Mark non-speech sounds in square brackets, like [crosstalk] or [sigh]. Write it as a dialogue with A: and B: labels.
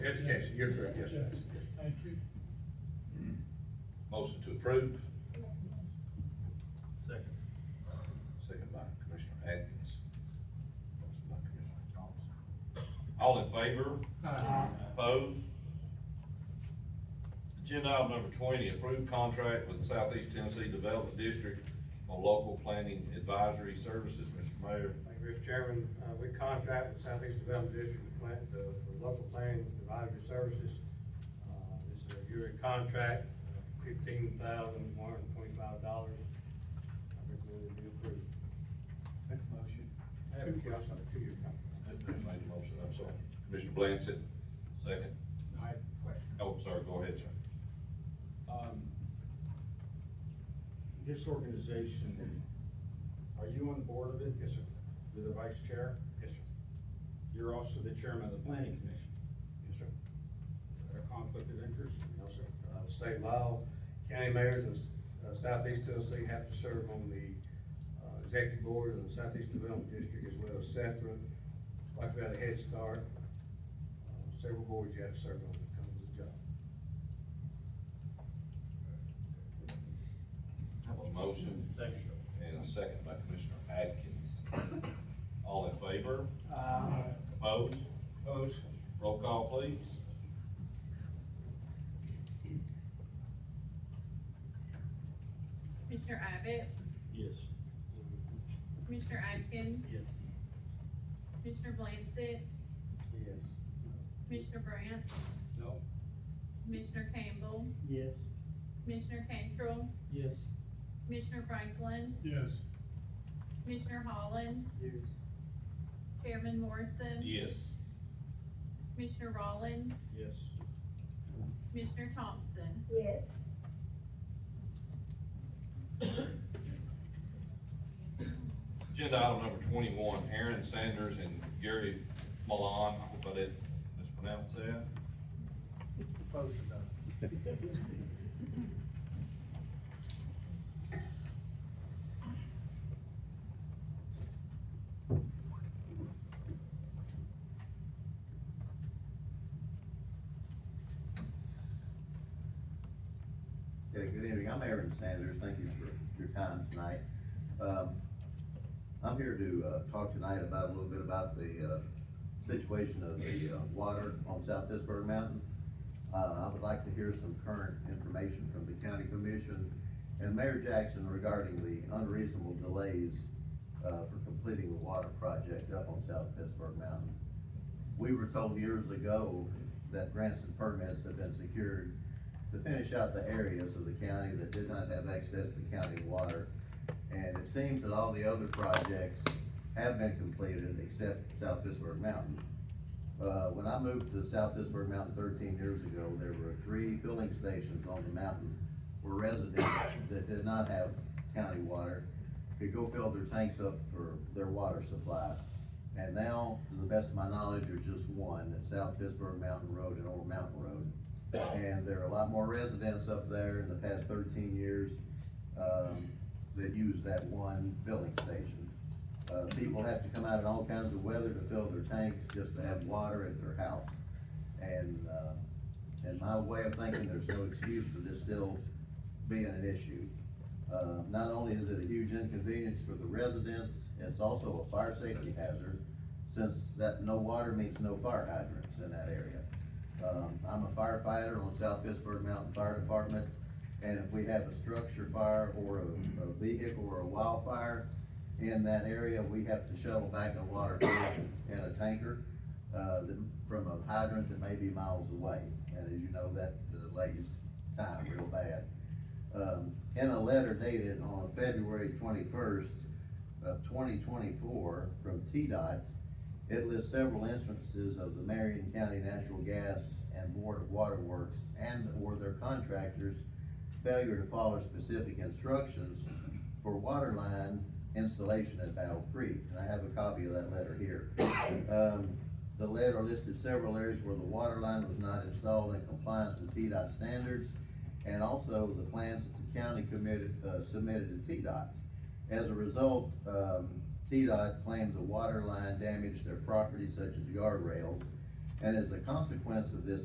A: Education, you're correct, yes, sir.
B: Thank you.
A: Motion to approve,
C: Second.
A: second by Commissioner Atkins. Motion by Commissioner Thompson. All in favor?
D: Uh,
A: Opposed? Agenda item number twenty, approved contract with Southeast Tennessee Development District on local planning advisory services, Mr. Mayor.
D: Thank you, Mr. Chairman. Uh, we contract with Southeast Development District to plan, the, the local planning advisory services. Uh, this is a yearly contract, uh, fifteen thousand one hundred and twenty-five dollars. I recommend it be approved.
C: Make a motion.
D: I have a question, a two-year contract.
A: Who made the motion, I'm sorry. Commissioner Blansett, second.
C: I have a question.
A: Oh, sorry, go ahead, sir.
C: Um, this organization, are you on the board of it?
D: Yes, sir.
C: You're the vice chair?
D: Yes, sir.
C: You're also the chairman of the planning commission.
D: Yes, sir.
C: Is that a conflict of interest?
D: No, sir. Uh, state law, county mayors of uh, Southeast Tennessee have to serve on the, uh, executive board of the Southeast Development District as well as SEFRA. Like we had a head start, uh, several boards you have to serve on that comes with the job.
A: A Motion.
C: Second.
A: And a second by Commissioner Atkins. All in favor? Opposed? Opposed. Roll call, please.
E: Commissioner Abbott,
C: Yes.
E: Commissioner Atkins,
C: Yes.
E: Commissioner Blansett,
C: Yes.
E: Commissioner Brandt,
C: No.
E: Commissioner Campbell,
C: Yes.
E: Commissioner Cantrell,
C: Yes.
E: Commissioner Franklin,
B: Yes.
E: Commissioner Holland,
C: Yes.
E: Chairman Morrison,
A: Yes.
E: Commissioner Rollins,
C: Yes.
E: Commissioner Thompson.
F: Yes,
A: Agenda item number twenty-one, Aaron Sanders and Gary Milan, I hope I didn't mispronounce that.
D: [laughs]
G: Okay, good evening, I'm Aaron Sanders, thank you for your time tonight. Um, I'm here to, uh, talk tonight about, a little bit about the, uh, situation of the, uh, water on South Pittsburgh Mountain. Uh, I would like to hear some current information from the county commission and Mayor Jackson regarding the unreasonable delays, uh, for completing the water project up on South Pittsburgh Mountain. We were told years ago that grants and permits had been secured to finish out the areas of the county that did not have access to county water. And it seems that all the other projects have been completed except South Pittsburgh Mountain. Uh, when I moved to South Pittsburgh Mountain thirteen years ago, there were three filling stations on the mountain where residents that did not have county water could go fill their tanks up for their water supply. And now, to the best of my knowledge, there's just one at South Pittsburgh Mountain Road and Old Mountain Road. And there are a lot more residents up there in the past thirteen years, um, that use that one filling station. Uh, people have to come out in all kinds of weather to fill their tanks, just to have water at their house. And, uh, in my way of thinking, there's no excuse for this still being an issue. Uh, not only is it a huge inconvenience for the residents, it's also a fire safety hazard, since that no water means no fire hydrants in that area. Um, I'm a firefighter on South Pittsburgh Mountain Fire Department, and if we have a structure fire or a, a vehicle or a wildfire in that area, we have to shuttle back a water in a tanker, uh, that- from a hydrant that may be miles away, and as you know, that delays time real bad. Um, in a letter dated on February twenty-first of twenty twenty-four from TDOT, it lists several instances of the Marion County Natural Gas and Board of Waterworks and/or their contractors' failure to follow specific instructions for water line installation at Battle Creek. And I have a copy of that letter here. Um, the letter listed several areas where the water line was not installed in compliance with TDOT standards and also the plans that the county committed, uh, submitted to TDOT. As a result, um, TDOT claims the water line damaged their property such as guardrails And as a consequence of this